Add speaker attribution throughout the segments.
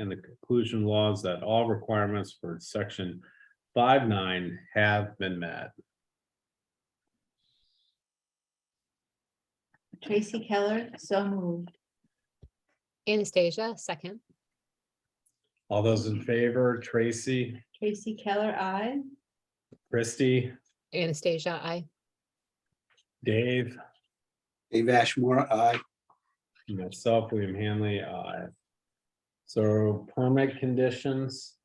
Speaker 1: and the conclusion laws that all requirements for section five nine have been met.
Speaker 2: Tracy Keller, so moved.
Speaker 3: Anastasia, second.
Speaker 1: All those in favor, Tracy,
Speaker 2: Tracy Keller, I.
Speaker 1: Christie,
Speaker 3: Anastasia, I.
Speaker 1: Dave,
Speaker 4: Dave Ashmore, aye.
Speaker 1: and myself, William Hanley, aye. So permit conditions.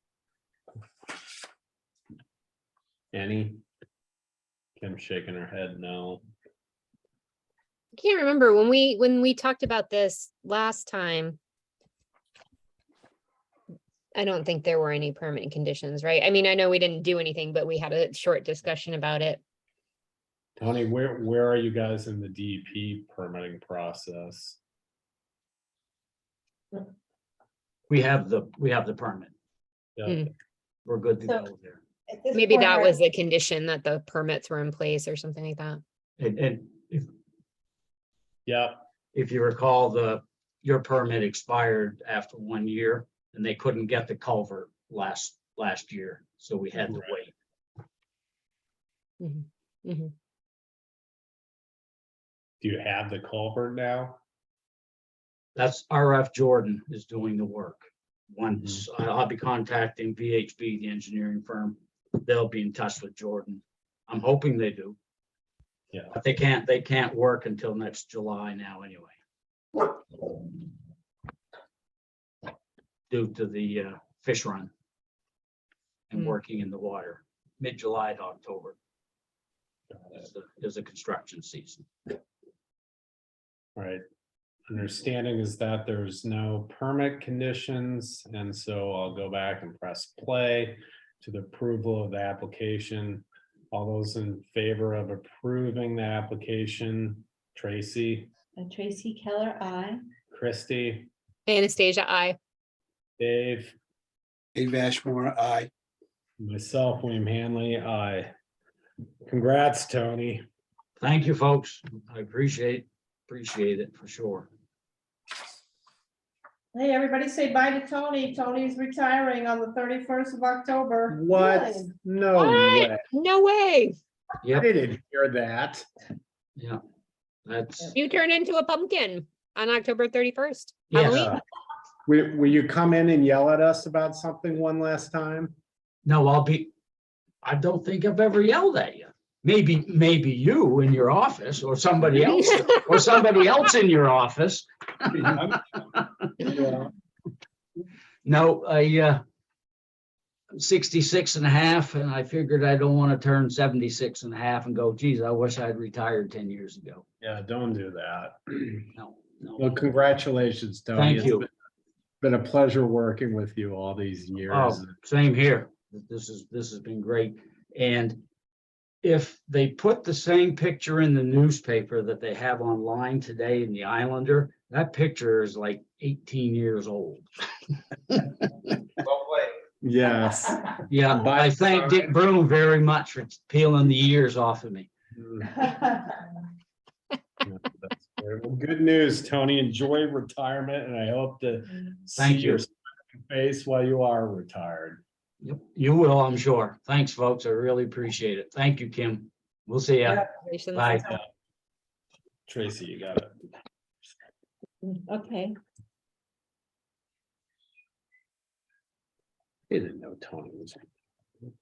Speaker 1: Any? Kim shaking her head, no.
Speaker 3: I can't remember when we, when we talked about this last time. I don't think there were any permanent conditions, right? I mean, I know we didn't do anything, but we had a short discussion about it.
Speaker 1: Tony, where, where are you guys in the DEP permitting process?
Speaker 5: We have the, we have the permit.
Speaker 1: Yeah.
Speaker 5: We're good to
Speaker 2: So-
Speaker 5: go there.
Speaker 2: At this
Speaker 3: Maybe
Speaker 2: point,
Speaker 3: that
Speaker 2: our-
Speaker 3: was the condition that the permits were in place or something like that.
Speaker 5: And, and if,
Speaker 1: Yep,
Speaker 5: if you recall, the, your permit expired after one year and they couldn't get the culvert last, last year. So we had to
Speaker 1: Right.
Speaker 5: wait.
Speaker 3: Mhm.
Speaker 1: do you have the culvert now?
Speaker 5: That's RF Jordan is doing the work. Once,
Speaker 1: Mm-hmm.
Speaker 5: I- I'll be contacting VHB, the engineering firm. They'll be in touch with Jordan. I'm hoping they do.
Speaker 1: Yeah.
Speaker 5: But they can't, they can't work until next July now anyway. Due to the uh, fish run. And
Speaker 3: Hmm.
Speaker 5: working in the water, mid-July to October. Is the- is the construction season.
Speaker 1: Right. Understanding is that there's no permit conditions, and so I'll go back and press play to the approval of the application. All those in favor of approving the application, Tracy,
Speaker 2: Uh, Tracy Keller, I.
Speaker 1: Christie,
Speaker 3: Anastasia, I.
Speaker 1: Dave,
Speaker 4: Dave Ashmore, aye.
Speaker 1: myself, William Hanley, I. Congrats, Tony.
Speaker 5: Thank you, folks. I appreciate, appreciate it for sure.
Speaker 6: Hey, everybody say bye to Tony. Tony's retiring on the thirty-first of October.
Speaker 1: What?
Speaker 6: Really?
Speaker 1: No
Speaker 3: What?
Speaker 1: way.
Speaker 3: No way.
Speaker 1: I
Speaker 5: Yep,
Speaker 1: didn't hear that.
Speaker 5: yeah. That's,
Speaker 3: You turn into a pumpkin on October thirty-first.
Speaker 5: yes.
Speaker 1: Yeah. Uh, Will, will you come in and yell at us about something one last time?
Speaker 5: No, I'll be, I don't think I've ever yelled at you. Maybe, maybe you in your office or somebody else, or somebody else in your office.
Speaker 1: Yeah.
Speaker 5: No, I, uh, I'm 66 and a half, and I figured I don't want to turn 76 and a half and go, geez, I wish I'd retired 10 years ago.
Speaker 1: Yeah, don't do that.
Speaker 5: No,
Speaker 1: Well,
Speaker 5: no.
Speaker 1: congratulations, Tony.
Speaker 5: Thank
Speaker 1: It's
Speaker 5: you.
Speaker 1: been- Been a pleasure working with you all these years.
Speaker 5: Oh, same here. This is, this has been great. And if they put the same picture in the newspaper that they have online today in the Islander, that picture is like eighteen years old.
Speaker 1: Yes.
Speaker 5: Yeah,
Speaker 1: Bye.
Speaker 5: I thank Dick Broom very much for peeling the ears off of me.
Speaker 1: Mm, yeah, that's great. Well, Good news, Tony. Enjoy retirement and I hope to see
Speaker 5: Thank you.
Speaker 1: your smiling face while you are retired.
Speaker 5: Yep, You will, I'm sure. Thanks, folks. I really appreciate it. Thank you, Kim. We'll see ya.
Speaker 3: Congratulations.
Speaker 5: Bye.
Speaker 1: Tracy, you got it.
Speaker 2: Okay,
Speaker 1: Didn't know Tony was.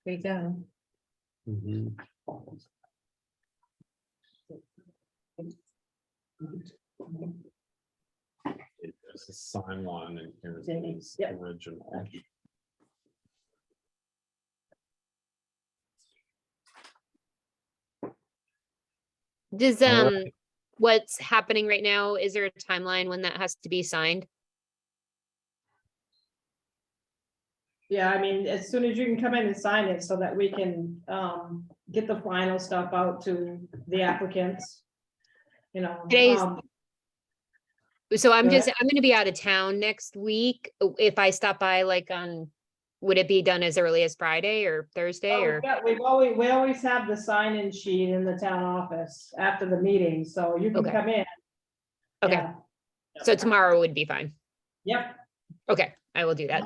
Speaker 2: there you go.
Speaker 1: Mhm. There's a sign one and here's
Speaker 2: There it
Speaker 1: his
Speaker 2: is. Yep.
Speaker 1: original.
Speaker 3: Does,
Speaker 1: All
Speaker 3: um, what's happening right now, is there a timeline when that has to be signed?
Speaker 6: Yeah, I mean, as soon as you can come in and sign it so that we can, um, get the final stuff out to the applicants. You know.
Speaker 3: Today's-
Speaker 6: um,
Speaker 3: So I'm
Speaker 6: Go
Speaker 3: just, I'm gonna be out of town next week. O- If I stop by like on, would it be done as early as Friday or Thursday
Speaker 6: oh,
Speaker 3: or?
Speaker 6: we've got- We've always, we always have the sign-in sheet in the town office after the meeting, so you can
Speaker 3: Okay.
Speaker 6: come in.
Speaker 3: Okay,
Speaker 6: Yeah.
Speaker 3: so tomorrow would be fine.
Speaker 6: Yep.
Speaker 3: Okay, I will do that.